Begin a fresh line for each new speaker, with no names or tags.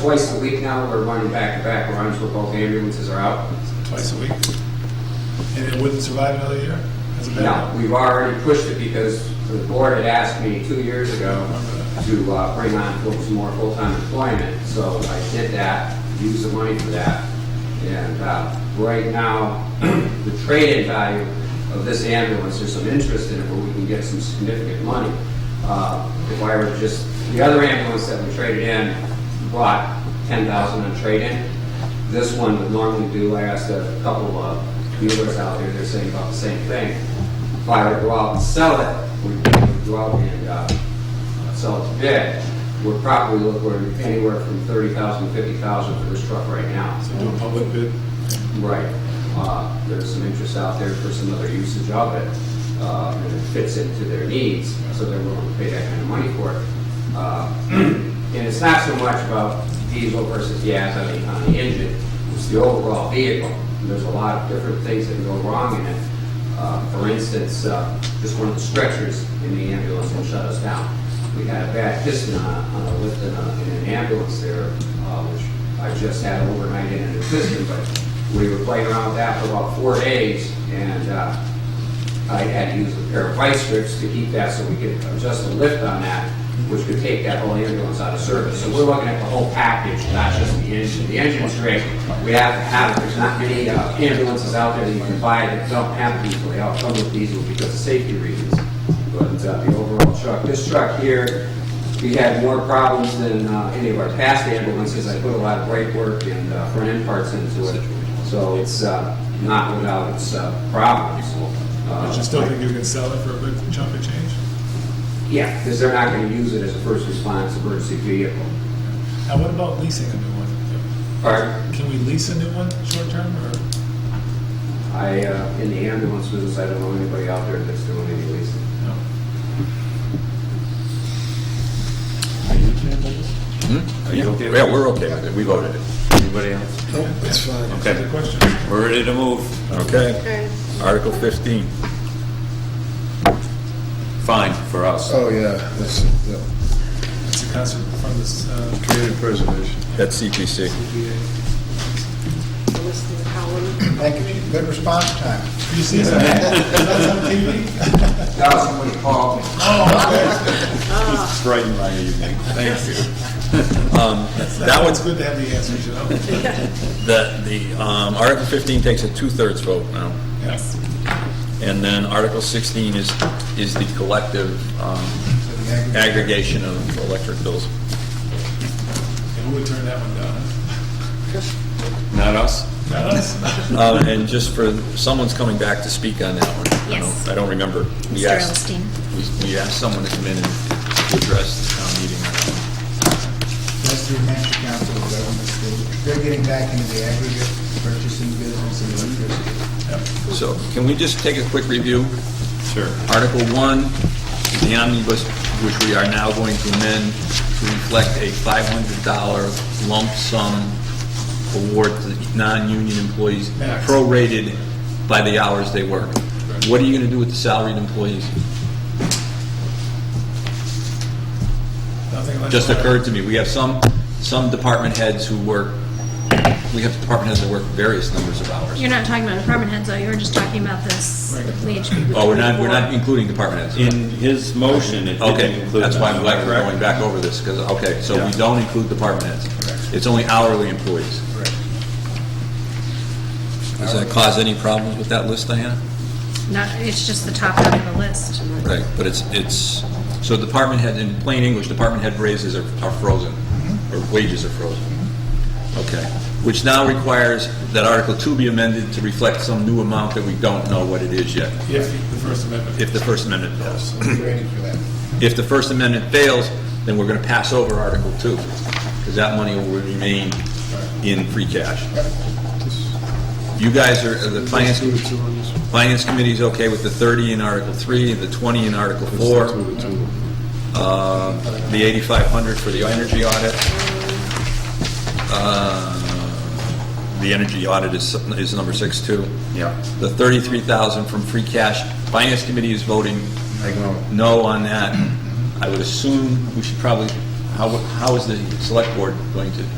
twice a week now, we're running back-to-back runs where both ambulances are out.
twice a week? And it wouldn't survive another year? As a
No,
backup?
we've already pushed it because the board had asked me two years ago to uh, bring on full- some more full-time employment, so I did that, used the money for that. And uh, right now, the trade-in value of this ambulance, there's some interest in it where we can get some significant money. Uh, If I were just, the other ambulance that we traded in brought 10,000 in trade-in. This one would normally do, I asked a couple of dealers out there, they're saying about the same thing. If I were to go out and sell it, we would go out and uh, sell it to bid, we're probably looking anywhere from 30,000, 50,000 for this truck right now.
So do a public bid?
Right. Uh, There's some interest out there for some other usage of it, uh, and it fits into their needs, so they're willing to pay that kind of money for it. Uh, And it's not so much about diesel versus gas on the, on the engine, it's the overall vehicle. And There's a lot of different things that can go wrong in it. Uh, For instance, uh, just one of the stretchers in the ambulance will shut us down. We had a bad piston on a- on a lift in a- in an ambulance there, uh, which I just had overnight in an assistant, but we were playing around with that for about four days, and uh, I had to use a pair of vice grips to keep that so we could adjust the lift on that, which could take that whole ambulance out of service. So we're looking at the whole package, not just the engine. The engine's great. We have to have, it. there's not many uh, ambulances out there that you can buy that don't have diesel. They all come with diesel because of safety reasons. But uh, the overall truck, this truck here, we had more problems than uh, any of our past ambulances. I put a lot of brake work and uh, front end parts into it, so it's uh, not without its uh, problems. Uh,
But you still think you can sell it for a big chunk of change?
Yeah, because they're not going to use it as a first response emergency vehicle.
Now, what about leasing a new one?
Pardon?
Can we lease a new one short term or?
I, uh, in the ambulance business, I don't know anybody out there that's doing any leasing.
No.
Yeah, yeah, we're okay with it, we voted it. Anybody else?
That's fine.
Okay.
Other questions?
We're ready to move. Okay.
Okay.
Article 15. Fine for us.
Oh, yeah, that's, yeah,
It's a concert from this, uh,
community preservation.
That's CPC.
CPA.
List of the column.
Thank you. Good response time.
You see that? That's on Oh, TV?
That was somebody called me.
Brighten my evening. Thank you. Um, That
one's
one's,
good to have the answers, you know?
the, the, um, Article 15 takes a two-thirds vote now.
Yes.
And then Article 16 is, is the collective um, aggregation of electric bills.
And who would turn that one down?
Not us?
Not us.
Uh, And just for, someone's coming back to speak on that one. I don't-
Yes.
I don't remember. We
Mr.
asked-
Elstein.
we- We asked someone to come in and to address the town meeting. on that one.
That's through Hampshire Council of Governments. They- They're getting back into the aggregate purchasing business and electricity.
So can we just take a quick review? Sure. Article 1, the omnibus, which we are now going to amend to reflect a $500 lump sum award to non-union employees
Max.
prorated by the hours they work. What are you going to do with the salaried employees?
Nothing like
just
that.
occurred to me, we have some, some department heads who work, we have department heads that work various numbers of hours.
You're not talking about department heads, though, you were just talking about this wage.
Oh, we're not, we're not including department heads.
In his motion, it didn't
Okay,
include.
that's why I'm
that,
glad we're
correct?
going back over this, because, okay, so we
Yeah.
don't include department heads. It's only hourly employees. Does that cause any problems with that list, Diana?
Not, it's just the top end of the list.
Right, but it's, it's, so department head, in plain English, department head raises are are frozen,
Mm-hmm.
or wages are frozen. Okay, which now requires that Article 2 be amended to reflect some new amount that we don't know what it is yet,
If the First Amendment.
if the First Amendment fails.
We're ready for that.
If the First Amendment fails, then we're going to pass over Article 2, because that money will remain in free cash. You guys are, the Finance, Finance Committee's okay with the 30 in Article 3, the 20 in Article 4, uh, the 8,500 for the energy audit. Uh, The energy audit is, is number 6, too.
Yeah.
The 33,000 from free cash, Finance Committee is voting no on that. I would assume we should probably, how, how is the select board going to